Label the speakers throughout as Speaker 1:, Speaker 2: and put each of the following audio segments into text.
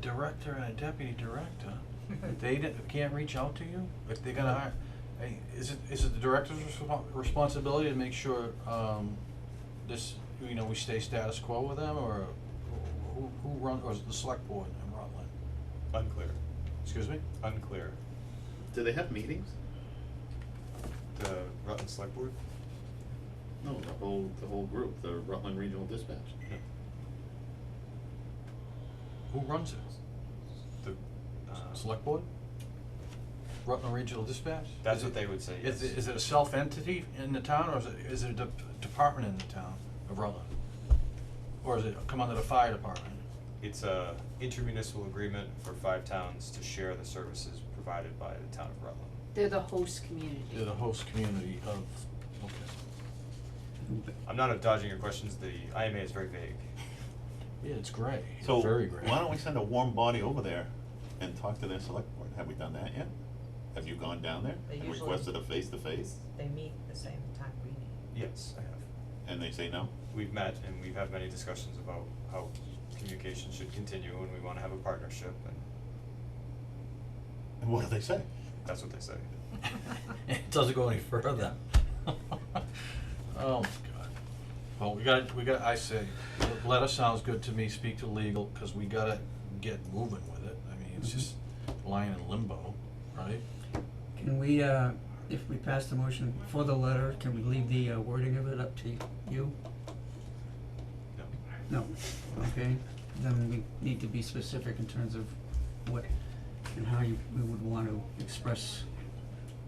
Speaker 1: director and a deputy director, if they di- can't reach out to you, if they're gonna hire, hey, is it, is it the director's respon responsibility to make sure, um, this, you know, we stay status quo with them, or who, who runs, or is it the select board in Rutland?
Speaker 2: Unclear,
Speaker 1: Excuse me? Uh,
Speaker 2: unclear.
Speaker 3: Do they have meetings?
Speaker 2: The Rutland Select Board?
Speaker 3: No, the whole, the whole group, the Rutland Regional Dispatch.
Speaker 2: No.
Speaker 1: Who runs it?
Speaker 2: The, uh.
Speaker 1: Select board? Rutland Regional Dispatch?
Speaker 2: That's
Speaker 1: Is
Speaker 2: what
Speaker 1: it-
Speaker 2: they would say,
Speaker 1: Is
Speaker 2: yes.
Speaker 1: it, is it a self-entity in the town, or is it, is it a dep- department in the town of Rutland? Or is it come under the fire department?
Speaker 2: It's a intermunicipal agreement for five towns to share the services provided by the town of Rutland.
Speaker 4: They're the host community.
Speaker 1: They're the host community of, okay.
Speaker 2: I'm not dodging your questions, the IMA is very vague.
Speaker 1: Yeah, it's gray, It's
Speaker 5: So,
Speaker 1: very gray.
Speaker 5: why don't we send a warm body over there and talk to their select board? Have we done that yet? Have you gone down there
Speaker 6: They
Speaker 5: and
Speaker 6: usually-
Speaker 5: requested a face-to-face?
Speaker 6: They meet the same time we meet.
Speaker 2: Yes, I have.
Speaker 5: And they say no?
Speaker 2: We've met and we've had many discussions about how communication should continue and we wanna have a partnership and
Speaker 5: And what do they say?
Speaker 2: that's what they say.
Speaker 1: It doesn't go any further. Oh, my God. Well, we gotta, we gotta, I say, letter sounds good to me, speak to legal, cause we gotta get moving with it. I mean, it's
Speaker 7: Mm-hmm.
Speaker 1: just lying in limbo, right?
Speaker 7: Can we, uh, if we pass the motion for the letter, can we leave the uh, wording of it up to you?
Speaker 2: No.
Speaker 7: No, okay, then we need to be specific in terms of what and how you, we would want to express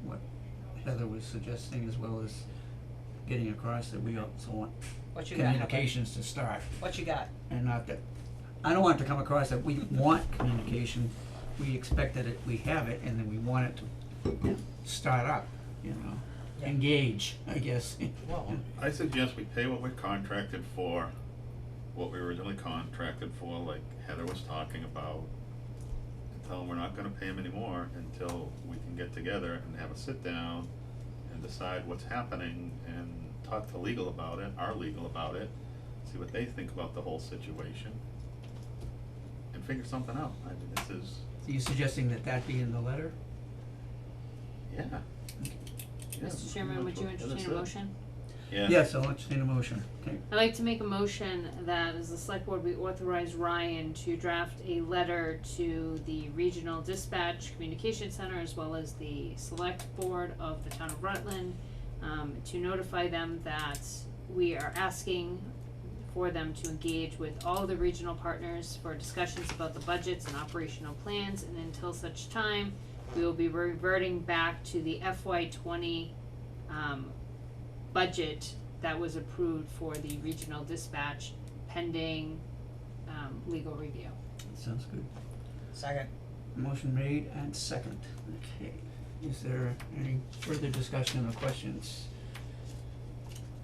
Speaker 7: what Heather was suggesting, as well as getting across that we also want
Speaker 6: What you got, Heather?
Speaker 7: communications to start,
Speaker 6: What you got?
Speaker 7: and not that, I don't want it to come across that we want communication, we expect that it, we have it, and then we want it to start up, you know,
Speaker 6: Yeah.
Speaker 7: engage, I guess.
Speaker 1: Well,
Speaker 3: I suggest we pay what we're contracted for, what we originally contracted for, like Heather was talking about. And tell them we're not gonna pay them anymore until we can get together and have a sit down and decide what's happening and talk to legal about it, our legal about it. See what they think about the whole situation. And figure something out. I mean, this is,
Speaker 7: So you suggesting that that be in the letter?
Speaker 3: yeah. Yeah,
Speaker 4: Mr. Chairman, would you
Speaker 3: that's what-
Speaker 4: entertain a
Speaker 3: that's it.
Speaker 4: motion?
Speaker 3: Yeah.
Speaker 7: Yes, I'll entertain a motion, okay.
Speaker 4: I'd like to make a motion that as the select board, we authorize Ryan to draft a letter to the Regional Dispatch Communication Center as well as the Select Board of the Town of Rutland um, to notify them that we are asking for them to engage with all the regional partners for discussions about the budgets and operational plans and until such time, we will be reverting back to the FY twenty um budget that was approved for the regional dispatch pending um legal review.
Speaker 7: That sounds good.
Speaker 6: Second.
Speaker 7: Motion made and second, okay. Is there any further discussion or questions?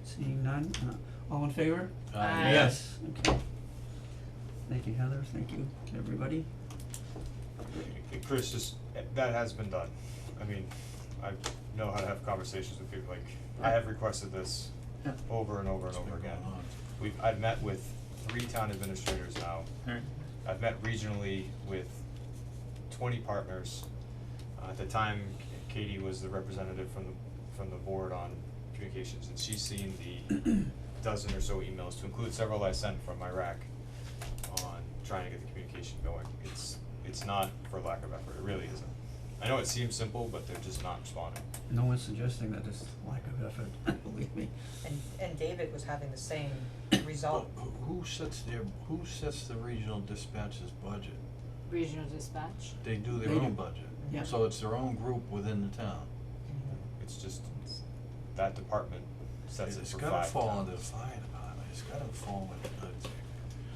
Speaker 7: Seeing none, uh, all in favor?
Speaker 1: uh,
Speaker 4: Aye.
Speaker 7: Yes. Okay. Thank you, Heather, thank you, everybody.
Speaker 2: Chris, just, that has been done. I mean, I know how to have conversations with people, like, I have requested this
Speaker 3: Yeah.
Speaker 2: over and over and
Speaker 1: It's been
Speaker 2: over again.
Speaker 1: going on.
Speaker 2: We've, I've met with three town administrators now.
Speaker 3: Alright.
Speaker 2: I've met regionally with twenty partners. Uh, At the time, Katie was the representative from the, from the board on communications, and she's seen the dozen or so emails, to include several I sent from Iraq on trying to get the communication going. It's, it's not for lack of effort, it really isn't. I know it seems simple, but they're just not responding.
Speaker 7: No one's suggesting that it's lack of effort, believe me.
Speaker 6: And, and David was having the same result.
Speaker 1: Who who sets their, who sets the regional dispatches budget?
Speaker 4: Regional dispatch.
Speaker 1: They do their
Speaker 7: They
Speaker 1: own
Speaker 7: do.
Speaker 1: budget.
Speaker 7: Yeah.
Speaker 1: So it's their own group within the town.
Speaker 2: It's just, that department sets it
Speaker 1: It's
Speaker 2: for
Speaker 1: gotta
Speaker 2: five
Speaker 1: fall under the
Speaker 2: towns.
Speaker 1: fire department, it's gotta fall with the,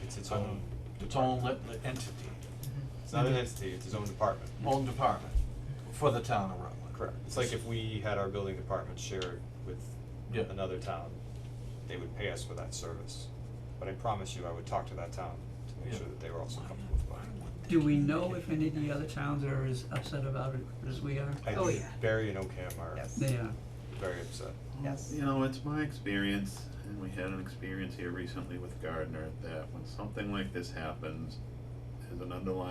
Speaker 2: It's its
Speaker 1: um,
Speaker 2: own,
Speaker 1: its own lit- lit entity,
Speaker 2: it's not an entity, it's its own department.
Speaker 1: own department for the town of Rutland.
Speaker 2: Correct. It's like if we had our building department shared with
Speaker 1: Yeah.
Speaker 2: another town, they would pay us for that service. But I promise you, I would talk to that town to make
Speaker 1: Yeah.
Speaker 2: sure that they were also comfortable with mine.
Speaker 7: Do we know if any of the other towns are as upset about it as we are?
Speaker 2: I
Speaker 6: Oh,
Speaker 2: think
Speaker 6: yeah.
Speaker 2: Barry and Ocam are
Speaker 6: Yes.
Speaker 7: They are.
Speaker 2: very upset.
Speaker 6: Yes.
Speaker 3: You know, it's my experience, and we had an experience here recently with Gardner, that when something like this happens, there's an underlying